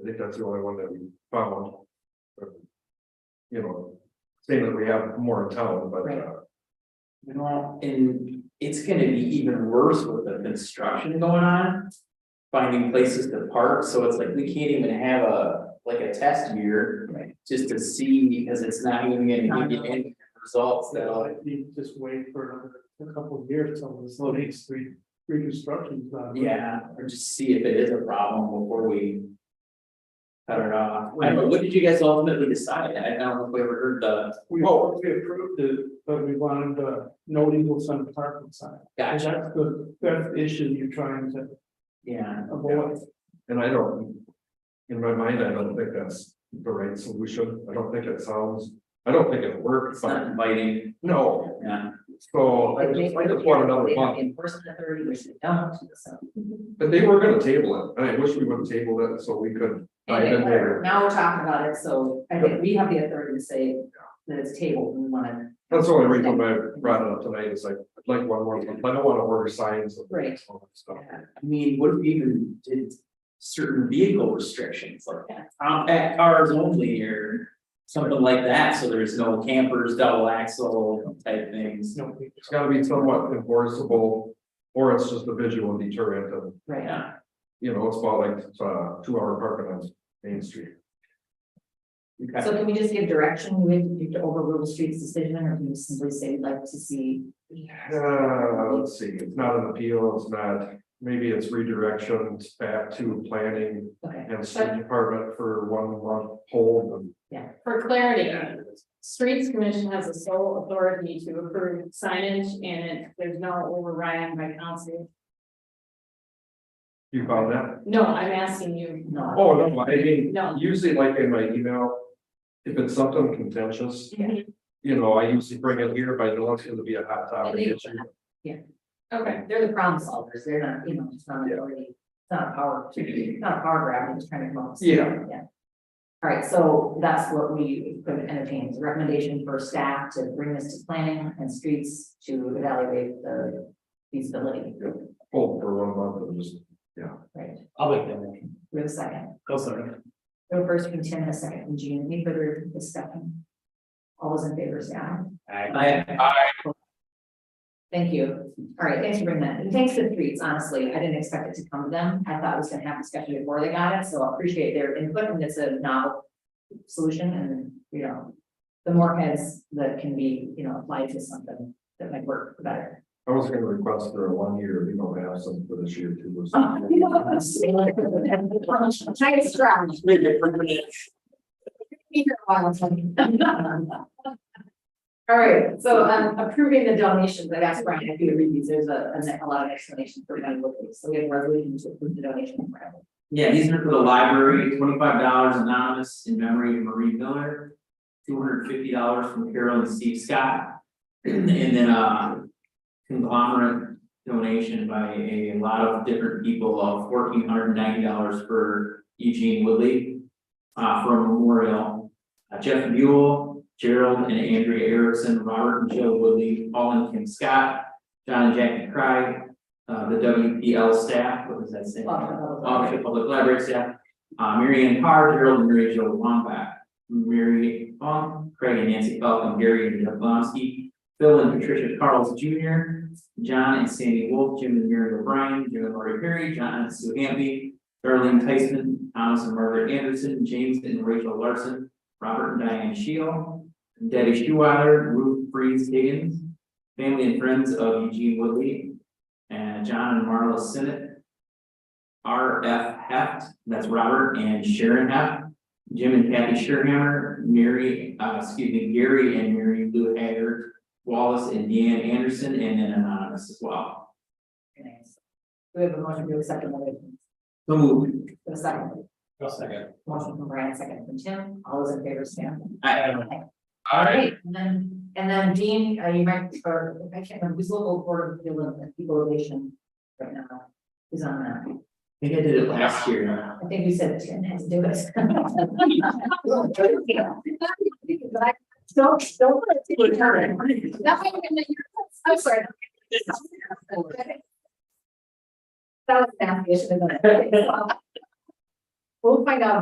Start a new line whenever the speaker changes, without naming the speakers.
I think that's the only one that we found. Um, You know, saying that we have more in town, but
Right.
uh,
You know, and it's gonna be even worse with the construction going on. Finding places to park, so it's like we can't even have a, like a test year. Just to see, because it's not even gonna give you any results that
So
all.
I think just wait for another, a couple of years till this next street reconstruction's done.
Yeah, or just see if it is a problem before we. Cut it off, I don't know, what did you guys ultimately decide, I don't know if we ever heard the,
We hope we approved it, but we wanted the no legal sun parking sign. And
gotcha,
That's the, that's the issue you're trying to
yeah,
avoid.
and I don't. In my mind, I don't think that's the right solution. I don't think it sounds, I don't think it works,
it's not
but
inviting,
no,
yeah,
so I just, I just want another month.
Enforcement authority, which they don't, so.
But they were gonna table it, and I wish we would have tabled it so we could dive in there.
Now we're talking about it, so I think we have the authority to say that it's tabled, we wanna.
That's the only reason why I brought it up tonight, is like, I'd like one more, month. I don't wanna order signs. and
Right.
all that Stuff.
I mean, what if we even did certain vehicle restrictions, like.
Yeah.
Um, at cars only or something like that, so there's no campers, double axle type things,
No legal.
It's gotta be somewhat enforceable, or it's just a visual deterrent of,
Right,
yeah.
you know, it's about like, uh, two hour parking on Main Street.
okay.
so can we just give direction, we have to overrule the street's decision, or can we simply say we'd like to see?
Uh, let's see, it's not an appeal, it's not, maybe it's redirection back to planning
Okay,
and street department for one month hold and.
yeah,
For clarity, streets commission has the sole authority to approve signage and it- there's no override by council.
You found that?
No, I'm asking you,
no,
Oh, no, I mean,
No.
usually like in my email, if it's something contentious.
Mhm.
You know, I usually bring it here, but I know it's gonna be a hot topic
Illegal.
issue.
okay,
they're the problem solvers, they're not, you know, it's not
Yeah.
authority, it's not a power, it's not a power grab, they're just trying to come up. with
Yeah.
something, Yeah. All right, so that's what we could entertain, is a recommendation for staff to bring this to planning and streets to evaluate the feasibility,
Hold for one month and just,
right?
I'll make that motion.
We have a second.
Go sorry.
We have a first from Tim and a second from Gene. Any further discussion? All those in favor say aye.
I,
Thank you. All right, thanks for bringing that. And thanks to the streets, honestly. I didn't expect it to come to them. I thought it was gonna happen especially before they got it, so I appreciate their input and it's a novel solution and, you know, the more heads that can be, you know, applied to something that might work better.
I was gonna request for a one year, we don't have some for this year too. was-
Nice try. Be here a while, Tony. All right, so um approving the donations, I asked Brian if you would read these, there's a, a lot of explanation for them, so we have a resolution to approve the donation.
yeah, these are for the library, twenty-five dollars anonymous in memory of Marie Miller. Two hundred and fifty dollars from Carol and Steve Scott. And then a conglomerate donation by a lot of different people of fourteen hundred and ninety dollars for Eugene Woodley. Uh, for a memorial, Uh, Jeff Buell, Gerald and Andrea Erickson, Robert and Joe Woodley, Paul and Kim Scott. John and Jackie Cry, uh, the WPL staff, what was that saying? Office of Public Library staff, uh, Mary Ann Carr, Gerald and Mary Jo Wambach, Mary Fong, Craig and Nancy Falcon, Gary and Jeff Blonsky, Phil and Patricia Carls Junior, John and Sandy Wolf, Jim and Mary O'Brien, Jim and Lori Perry, John and Sue Hamby, Darlene Tyson, Thomas and Margaret Anderson, James and Rachel Larson, Robert and Diane Shield, Debbie Schuwater, Ruth Freeze Higgins, family and friends of Eugene Woodley, and John and Marla Sinnott, R F Heft, that's Robert and Sharon Heft. Jim and Kathy Sherhammer, Mary, uh, excuse me, Gary and Mary Lou Haggard, Wallace and Deanne Anderson, and then anonymous as well.
We have a motion to accept the donation.
So moved.
For the second,
second.
motion from Brian, second from Tim, all those in favor, stand.
I,
All right, and then, and then Dean, uh, you might, or I can't remember, who's local board of Equalization- equalization right now? Who's on that?
I think I did it last year.
I think you said Tim has to do it. Don't, don't. That might have been the year. I'm sorry. That was an application. We'll find out